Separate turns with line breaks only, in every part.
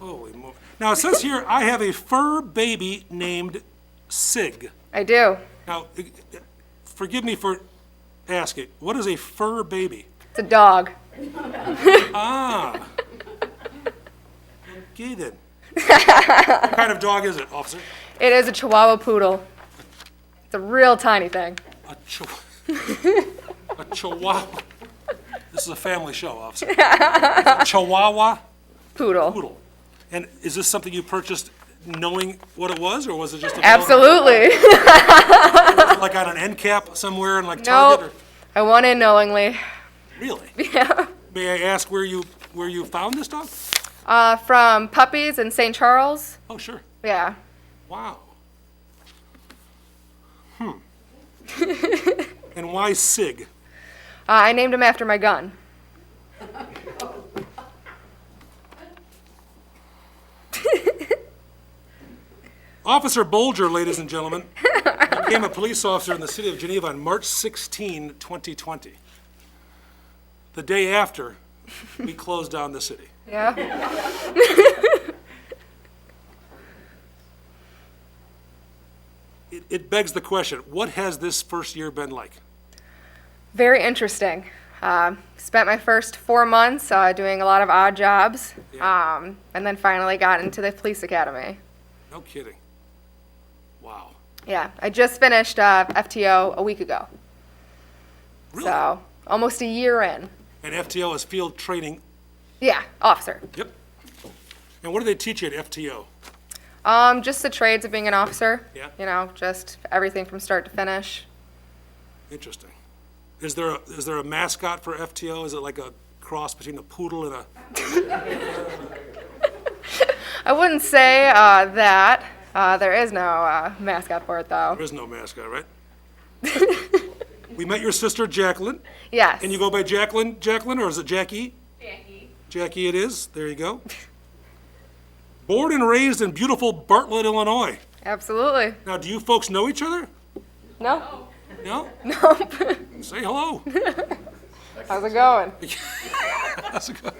move. Now, it says here, I have a fur baby named Sig.
I do.
Now, eh, eh, forgive me for asking, what is a fur baby?
It's a dog.
Gay then. What kind of dog is it, officer?
It is a Chihuahua poodle. It's a real tiny thing.
A chihuahua. A chihuahua. This is a family show, officer. Chihuahua
Poodle.
poodle. And is this something you purchased knowing what it was, or was it just? available-
Absolutely.
Like on an end cap somewhere in like
no,
Target? or-
I went in knowingly.
Really? Yeah. May I ask where you, where you found this dog?
Uh, from puppies in St. Charles.
Oh, sure.
Yeah.
Wow. Hmm. And why Sig?
Uh, I named him after my gun.
Officer Bolger, ladies and gentlemen, became a police officer in the city of Geneva on March 16, 2020. The day after, we closed down the city.
Yeah.
It- It begs the question, what has this first year been like?
Very interesting. Um, spent my first four months uh, doing a lot of odd jobs,
Yeah.
um, and then finally got into the police academy.
No kidding. Wow.
Yeah, I just finished uh, FTO a week ago,
Really?
so almost a year in.
And FTO is field training.
Yeah, officer.
Yep. And what do they teach you at FTO?
Um, just the trades of being an officer.
Yeah.
You know, just everything from start to finish.
Interesting. Is there, a- is there a mascot for FTO? Is it like a cross between a poodle and a,
I wouldn't say uh, that. Uh, there is no uh, mascot for it, though.
there is no mascot, right? We met your sister Jacqueline.
Yes.
And you go by Jacqueline, Jacqueline, or is it Jackie? Jackie. Jackie it is, there you go. Born and raised in beautiful Bartlett, Illinois.
Absolutely.
Now, do you folks know each other?
No.
No?
Nope.
Say hello.
How's it going?
That's a good-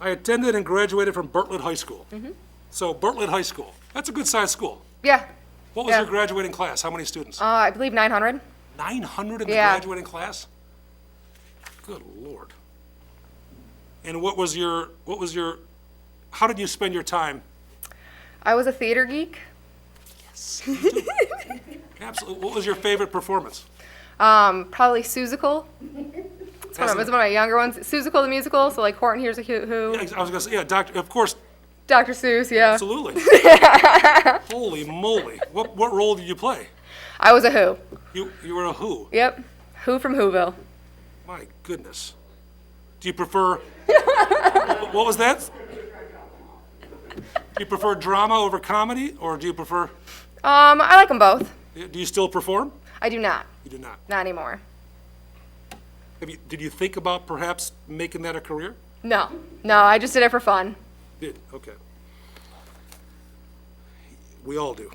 I attended and graduated from Bartlett High School.
Mm-hmm.
So Bartlett High School, that's a good-sized school.
Yeah.
What was
Yeah.
your graduating class? How many students?
Uh, I believe 900.
900 in the
Yeah.
graduating class? Good lord. And what was your, what was your, how did you spend your time?
I was a theater geek.
Absolutely, what was your favorite performance?
Um, probably Susical. It's one, of,
Hasn't-
it's one of my younger ones. Susical the musical, so like Horton Hears a Who, Who
I was gonna say, yeah, Dr., of course,
Dr. Seuss, yeah.
absolutely. Holy moly, what, what role did you play?
I was a Who.
You, you were a who?
Yep. Who from Whoville.
My goodness. Do you prefer, what was that? Do you prefer drama over comedy, or do you prefer,
Um, I like them both.
do you still perform?
I do not.
You do not.
Not anymore.
Have you, did you think about perhaps making that a career?
No. No, I just did it for fun.
Did, okay. We all do.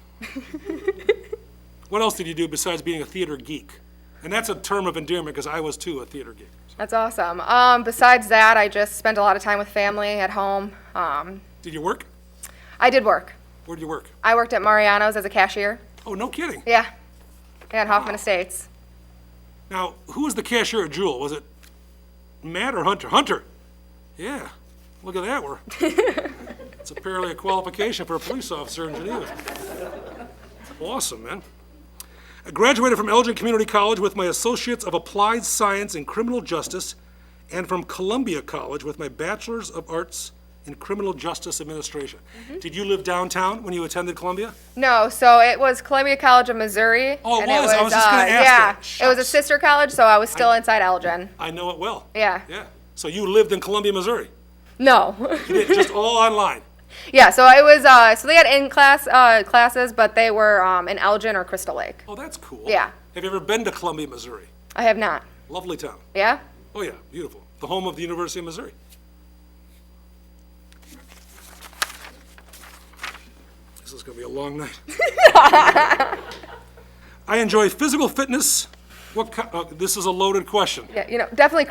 What else did you do besides being a theater geek? And that's a term of endearment, because I was too a theater geek.
That's awesome. Um, besides that, I just spent a lot of time with family at home. Um,
Did you work?
I did work.
Where did you work?
I worked at Mariano's as a cashier.
Oh, no kidding.
Yeah. Yeah, at Hoffman Estates.
Now, who was the cashier at Jewel? Was it Matt or Hunter? Hunter! Yeah, look at that, we're, it's apparently a qualification for a police officer in Geneva. Awesome, man. I graduated from Elgin Community College with my Associates of Applied Science in Criminal Justice and from Columbia College with my Bachelor's of Arts in Criminal Justice Administration. Did you live downtown when you attended Columbia?
No, so it was Columbia College of Missouri.
Oh, it
and uh,
was. I was just gonna ask that.
yeah, it was a
Shucks.
sister college, so I was still inside Elgin.
I know it well.
Yeah.
Yeah. So you lived in Columbia, Missouri?
No.
You did just all online?
yeah, so it was. Uh, so they had in class uh, classes, but they were um, in Elgin or Crystal Lake.
Oh, that's cool.
Yeah.
Have you ever been to Columbia, Missouri?
I have not.
Lovely town.
Yeah.
Oh, yeah, beautiful. The home of the University of Missouri. This is going to be a long night. I enjoy physical fitness. What, ki- uh, this is a loaded question.
Yeah. You know, definitely